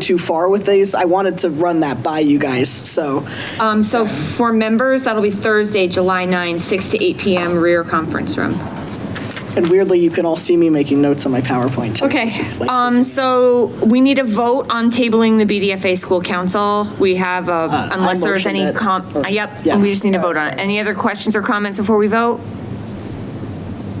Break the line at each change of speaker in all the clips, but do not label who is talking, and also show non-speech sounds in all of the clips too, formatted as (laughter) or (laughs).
too far with these. I wanted to run that by you guys, so.
Um, so for members, that'll be Thursday, July 9, 6 to 8 PM, rear conference room.
And weirdly, you can all see me making notes on my PowerPoint. too,
Okay,
which is like-
um, so we need a vote on tabling the BDFA school council. We have, a-
Uh,
unless there's
motion
any
that-
com,
or-
uh, yep,
Oh, yeah.
we just need to
Yeah,
vote on it.
sorry.
Any other questions or comments before we vote?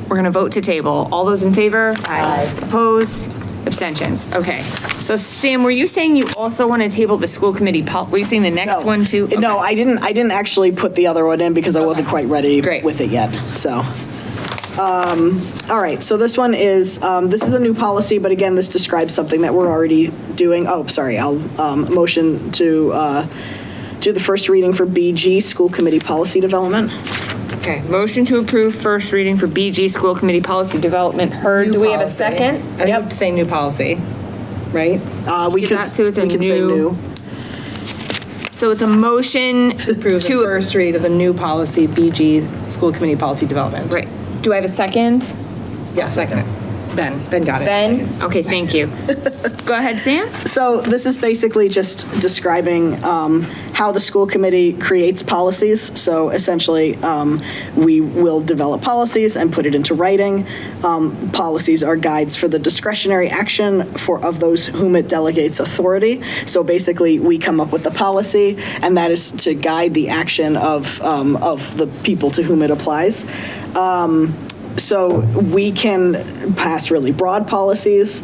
We're gonna vote to table. All those in favor? Aye. Opposed? Abstentions? Okay. So Sam, were you saying you also want to table the school committee pol, were you saying the next one too?
No,
Okay.
I didn't, I didn't actually put the other one in because I wasn't quite ready
Great.
with it yet, so. Um, All right, so this one is, um, this is a new policy, but again, this describes something that we're already doing. Oh, sorry, I'll um, motion to uh, do the first reading for BG, School Committee Policy Development.
Okay, motion to approve first reading for BG School Committee Policy Development Heard. Do we have a
policy.
second?
I think say new policy, right?
Uh, We
Give
could,
that to us
we
in
could say
new-
new.
So it's a motion
Approve the
to,
first read of the new policy, BG, school committee policy development.
right, do I have a second?
Yeah, second. Ben, Ben got it.
Ben? Okay, thank you. Go ahead, Sam?
So this is basically just describing um, how the school committee creates policies. So essentially, um, we will develop policies and put it into writing. Um, Policies are guides for the discretionary action for, of those whom it delegates authority. So basically, we come up with a policy, and that is to guide the action of, um, of the people to whom it applies. Um, So we can pass really broad policies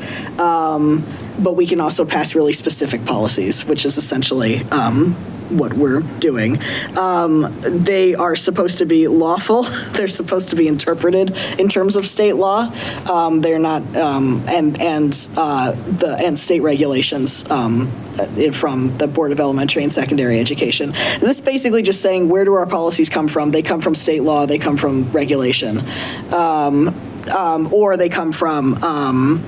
but we can also pass really specific policies, which is essentially um, what we're doing. Um, They are supposed to be lawful, (laughs) they're supposed to be interpreted in terms of state law. Um, They're not, um, and, and uh, the, and state regulations um, uh, from the Board of Elementary and Secondary Education. This is basically just saying, where do our policies come from? They come from state law, they come from regulation, Um, um, or they come from, um,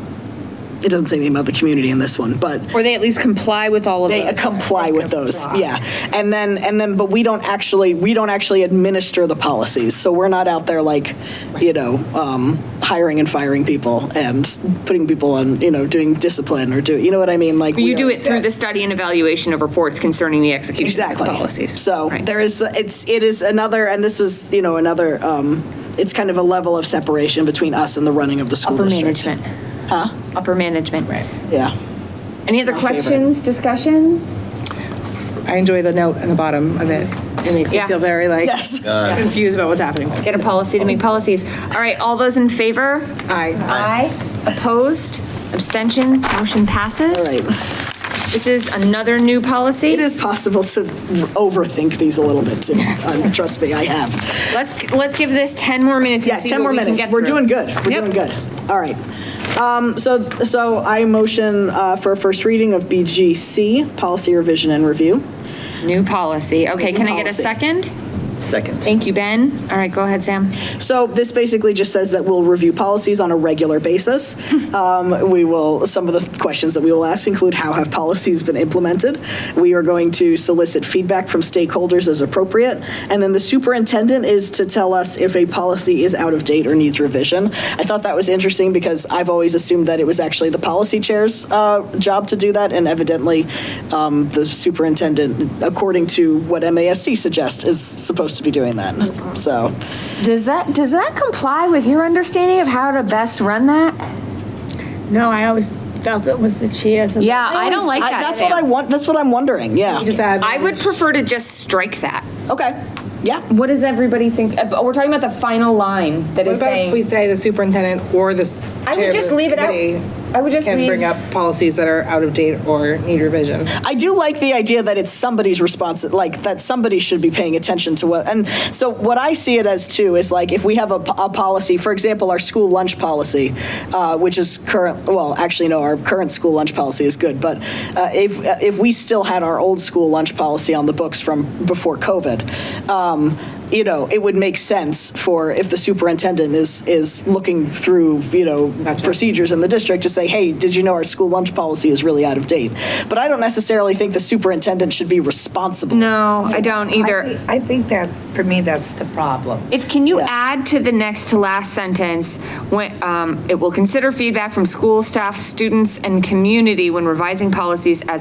it doesn't say anything about the community in this one, but
Or they at least comply with all of
they
those?
comply with those, yeah. And then, and then, but we don't actually, we don't actually administer the policies. So we're not out there like, you know, um, hiring and firing people and putting people on, you know, doing discipline or do, you know what I mean? Like. we
You do
are-
it through the study and evaluation of reports concerning the execution of the
Exactly.
policies.
So
Right.
there is, it's, it is another, and this is, you know, another, um, it's kind of a level of separation between us and the running of the school
Upper
district.
management. Huh? Upper management. Right.
Yeah.
Any other questions, discussions?
I enjoy the note on the bottom of it. It makes me
Yeah.
feel very
(laughs)
like
Yes.
confused about what's happening.
Get a policy to make policies. All right, all those in favor?
Aye.
Aye. Opposed? Abstention? Motion passes?
All
(laughs)
right.
This is another new policy?
It is possible to overthink these a little
(laughs)
bit too. Um, trust me, I have.
Let's, let's give this 10 more minutes
Yeah,
and see
10
what
more
we can
minutes.
get
We're doing
through.
good. We're
Yep.
doing good. All right. Um, So, so I motion uh, for a first reading of BGC, Policy Revision and Review.
New policy. Okay, can I get a
policy.
second?
Second.
Thank you, Ben. All right, go ahead, Sam.
So this basically just says that we'll review policies on a regular basis. Um, We will, some of the questions that we will ask include how have policies been implemented? We are going to solicit feedback from stakeholders as appropriate. And then the superintendent is to tell us if a policy is out of date or needs revision. I thought that was interesting because I've always assumed that it was actually the policy chair's uh, job to do that. And evidently, um, the superintendent, according to what MASC suggests, is supposed to be doing that. So.
Does that does that comply with your understanding of how to best run that?
No, I always felt it was the chairs. and-
Yeah, I don't like
I-
that.
That's what I
Sam.
want, that's what I'm wondering,
You just
yeah.
add.
I would prefer to just strike that.
Okay, yeah.
What does everybody think? uh, We're talking about the final line that
What
is
about if we
saying.
say the superintendent or the s-
I would
chair of
just
the
leave it out.
committee
I would just
Can bring
leave-
up policies that are out of date or need revision.
I do like the idea that it's somebody's response, like, that somebody should be paying attention to what, and so what I see it as too is like, if we have a, p- a policy, for example, our school lunch policy, uh, which is current, well, actually, no, our current school lunch policy is good, but uh, if, if we still had our old school lunch policy on the books from before COVID, um, you know, it would make sense for, if the superintendent is, is looking through, you know, procedures in the district to say, hey, did you know our school lunch policy is really out of date? But I don't necessarily think the superintendent should be responsible.
No, I don't
I
either.
thi- I think that, for me, that's the problem.
If, can you add to the next to last sentence, when, um, it will consider feedback from school staff, students, and community when revising policies as